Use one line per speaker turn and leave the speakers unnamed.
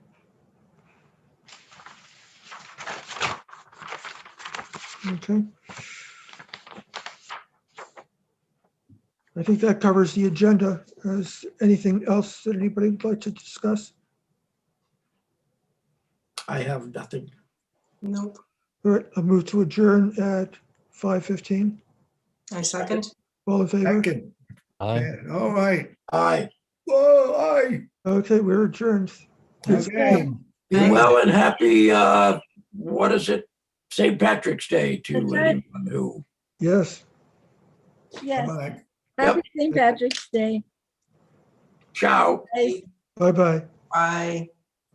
Okay. I think that covers the agenda. Is anything else that anybody would like to discuss?
I have nothing.
Nope,
All right, I'll move to adjourn at 5:15.
I second.
All in favor?
Second,
Aye.
yeah, all right.
Aye.
Whoa, aye.
Okay, we're adjourned.
Okay.
Be
Aye.
well and happy, uh, what is it? St. Patrick's Day to
That's right.
anyone who,
Yes,
Yes,
Bye.
happy St. Patrick's Day.
ciao.
guys.
bye-bye.
Bye.